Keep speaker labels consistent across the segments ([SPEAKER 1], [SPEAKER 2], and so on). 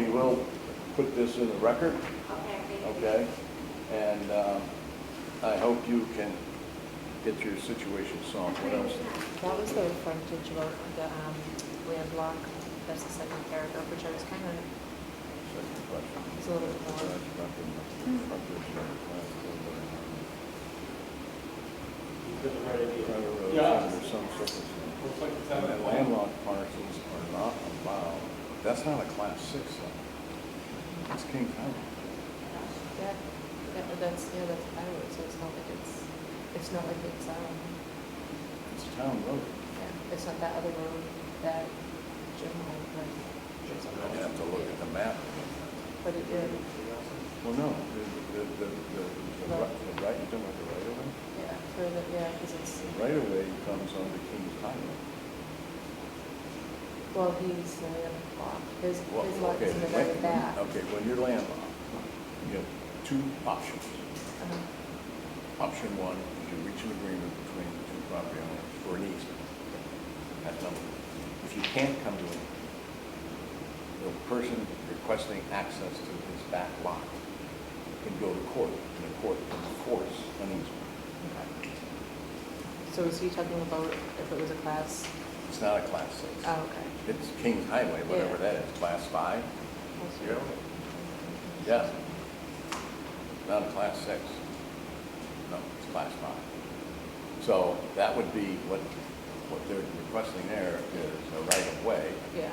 [SPEAKER 1] will put this in the record,
[SPEAKER 2] Okay, thank you.
[SPEAKER 1] okay? And um, I hope you can get your situation solved. What else?
[SPEAKER 3] That was the frontage of the um, land block, that's the second paragraph, which I was kind of,
[SPEAKER 1] Second question.
[SPEAKER 3] it's a little bit more. Hmm.
[SPEAKER 4] Doesn't really be-
[SPEAKER 1] Yeah.
[SPEAKER 4] Yeah.
[SPEAKER 1] Under some circumstances.
[SPEAKER 4] Looks like it's out of
[SPEAKER 1] And
[SPEAKER 4] the land.
[SPEAKER 1] Landlocked parcels are not allowed, that's not a class six though. It's King County.
[SPEAKER 3] That, that- that's, yeah, that's Iowa, so it's not like it's, it's not like it's, um,
[SPEAKER 1] It's a town road.
[SPEAKER 3] yeah, it's not that other road that Jim owned, but it's
[SPEAKER 1] I'd have to look at the map.
[SPEAKER 3] But it did,
[SPEAKER 1] Well, no, the, the, the, the- the, right- the right, you don't want the right of way?
[SPEAKER 3] yeah, for the, yeah, because it's,
[SPEAKER 1] The right of way comes under King's Highway.
[SPEAKER 3] well, he's the land block, his,
[SPEAKER 1] Well,
[SPEAKER 3] his lot is
[SPEAKER 1] okay,
[SPEAKER 3] in the
[SPEAKER 1] when-
[SPEAKER 3] very back.
[SPEAKER 1] Okay, when you're landlocked, you have two options.
[SPEAKER 3] Uh-huh.
[SPEAKER 1] Option one is you reach an agreement between the two property owners for an easement. That's number one. If you can't come to an easement, the person requesting access to his back lot can go to court, and the court can enforce an easement.
[SPEAKER 3] So is he talking about if it was a class?
[SPEAKER 1] It's not a class six.
[SPEAKER 3] Oh, okay.
[SPEAKER 1] It's King's Highway, whatever
[SPEAKER 3] Yeah.
[SPEAKER 1] that is, class five?
[SPEAKER 3] Also-
[SPEAKER 1] Yeah. Yes. Not a class six. No, it's class five. So that would be what, what they're requesting there is a right of way,
[SPEAKER 3] Yeah,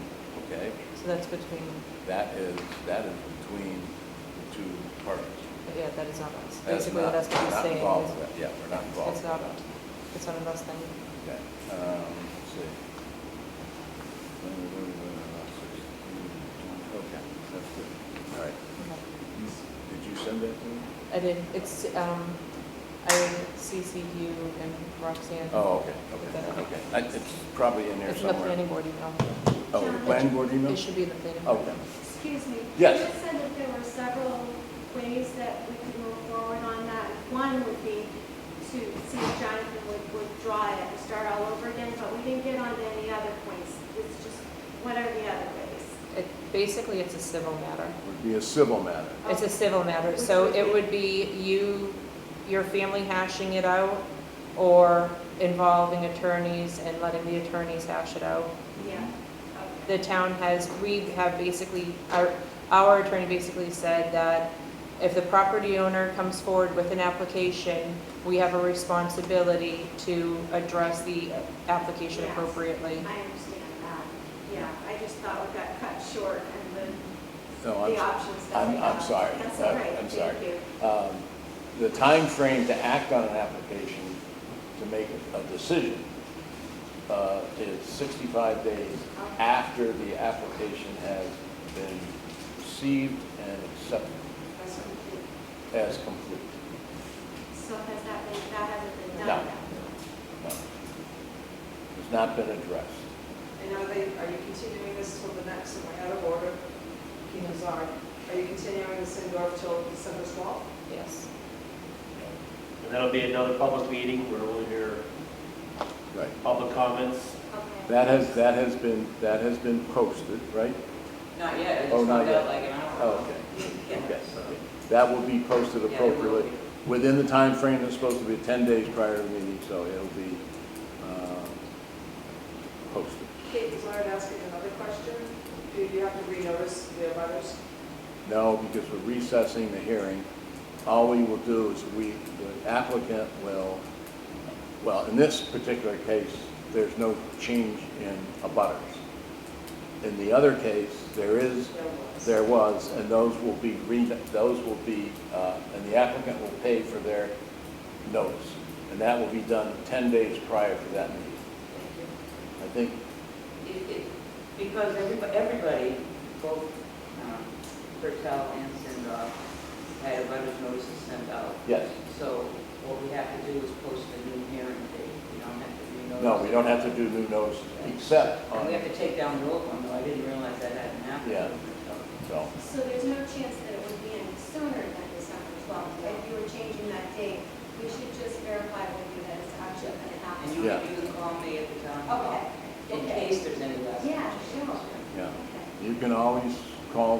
[SPEAKER 1] okay?
[SPEAKER 3] so that's between,
[SPEAKER 1] That is, that is between the two parties.
[SPEAKER 3] yeah, that is not us.
[SPEAKER 1] That's
[SPEAKER 3] Basically,
[SPEAKER 1] not-
[SPEAKER 3] that's what
[SPEAKER 1] not
[SPEAKER 3] he's saying.
[SPEAKER 1] involved
[SPEAKER 3] is-
[SPEAKER 1] with- Yeah, we're not involved.
[SPEAKER 3] It's
[SPEAKER 1] with
[SPEAKER 3] not,
[SPEAKER 1] that.
[SPEAKER 3] it's not a us thing.
[SPEAKER 1] Okay, um, let's see. Okay, that's good. All right. Did you send that to me?
[SPEAKER 3] I did, it's, um, I CC'd you and Roxanne.
[SPEAKER 1] Oh, okay,
[SPEAKER 3] Is
[SPEAKER 1] okay,
[SPEAKER 3] that okay?
[SPEAKER 1] okay. I- It's probably in there
[SPEAKER 3] It's in the planning
[SPEAKER 1] somewhere.
[SPEAKER 3] board email.
[SPEAKER 1] Oh, the planning board email?
[SPEAKER 3] It should be in the planning board.
[SPEAKER 1] Okay.
[SPEAKER 2] Excuse me.
[SPEAKER 1] Yes.
[SPEAKER 2] You just said that there were several ways that we could move forward on that. One would be to see if Jonathan would would draw it and start all over again, but we didn't get onto any other points. It's just, what are the other ways?
[SPEAKER 3] It, basically, it's a civil matter.
[SPEAKER 1] Would be a civil matter.
[SPEAKER 3] It's a civil matter, so it would be you, your family hashing it out, or involving attorneys and letting the attorneys hash it out.
[SPEAKER 2] Yeah.
[SPEAKER 1] Mm-hmm.
[SPEAKER 3] The town has, we have basically, our, our attorney basically said that if the property owner comes forward with an application, we have a responsibility to address the application
[SPEAKER 2] Yes.
[SPEAKER 3] appropriately.
[SPEAKER 2] I understand that. Yeah, I just thought we got cut short and the,
[SPEAKER 1] No, Oh,
[SPEAKER 2] the
[SPEAKER 1] I'm,
[SPEAKER 2] options that we
[SPEAKER 1] I'm,
[SPEAKER 2] have.
[SPEAKER 1] I'm sorry.
[SPEAKER 2] That's all
[SPEAKER 1] I'm-
[SPEAKER 2] right.
[SPEAKER 1] I'm sorry.
[SPEAKER 2] Thank you.
[SPEAKER 1] Um, The time frame to act on an application, to make a decision, uh, is 65 days after the application has been received and accepted
[SPEAKER 2] That's what we did.
[SPEAKER 1] as complete.
[SPEAKER 2] So has that been, that hasn't been
[SPEAKER 1] No.
[SPEAKER 2] done yet?
[SPEAKER 1] No. It's not been addressed.
[SPEAKER 5] And are they, are you continuing this till the next, am I out of order? Keep us on. Are you continuing this indoor till December 12th?
[SPEAKER 3] Yes.
[SPEAKER 6] And that'll be another public meeting where we'll hear
[SPEAKER 1] Right.
[SPEAKER 6] public comments.
[SPEAKER 2] Okay.
[SPEAKER 1] That has, that has been, that has been posted, right?
[SPEAKER 7] Not yet, I
[SPEAKER 1] Oh,
[SPEAKER 7] just
[SPEAKER 1] not
[SPEAKER 7] found
[SPEAKER 1] yet.
[SPEAKER 7] out like an hour
[SPEAKER 1] Oh,
[SPEAKER 7] ago.
[SPEAKER 1] okay.
[SPEAKER 7] Yeah,
[SPEAKER 1] Okay.
[SPEAKER 7] so-
[SPEAKER 1] That will be posted
[SPEAKER 7] Yeah, it will
[SPEAKER 1] appropriately, within the time frame that's supposed to be 10 days prior to the meeting, so it'll be um, posted.
[SPEAKER 5] Kate, is Leonard asking another question? Do you have to renotice the abutters?
[SPEAKER 1] No, because we're recessing the hearing. All we will do is we, the applicant will, well, in this particular case, there's no change in abutters. In the other case, there is
[SPEAKER 5] There was.
[SPEAKER 1] There was, and those will be, re- those will be, uh, and the applicant will pay for their notice. And that will be done 10 days prior to that meeting. I think,
[SPEAKER 7] It- it- Because everybody, everybody, both um, Bertel and Sindoff had abutters notices sent out.
[SPEAKER 1] yes.
[SPEAKER 7] So what we have to do is post a new hearing date. We don't have to renotice.
[SPEAKER 1] No, we don't have to do new notices, except
[SPEAKER 7] And
[SPEAKER 1] on,
[SPEAKER 7] we have to take down the old one, though I didn't realize that hadn't happened.
[SPEAKER 1] Yeah. so,
[SPEAKER 2] So there's no chance that it would be any sooner than December 12th? If you were changing that date, we should just verify with you that it's actually going to
[SPEAKER 7] And
[SPEAKER 2] happen.
[SPEAKER 7] you
[SPEAKER 1] Yeah.
[SPEAKER 7] you can call me at the town hall.
[SPEAKER 2] Okay.
[SPEAKER 7] In case there's any last.
[SPEAKER 2] Yeah, sure.
[SPEAKER 1] yeah.
[SPEAKER 2] Okay.
[SPEAKER 1] You can always call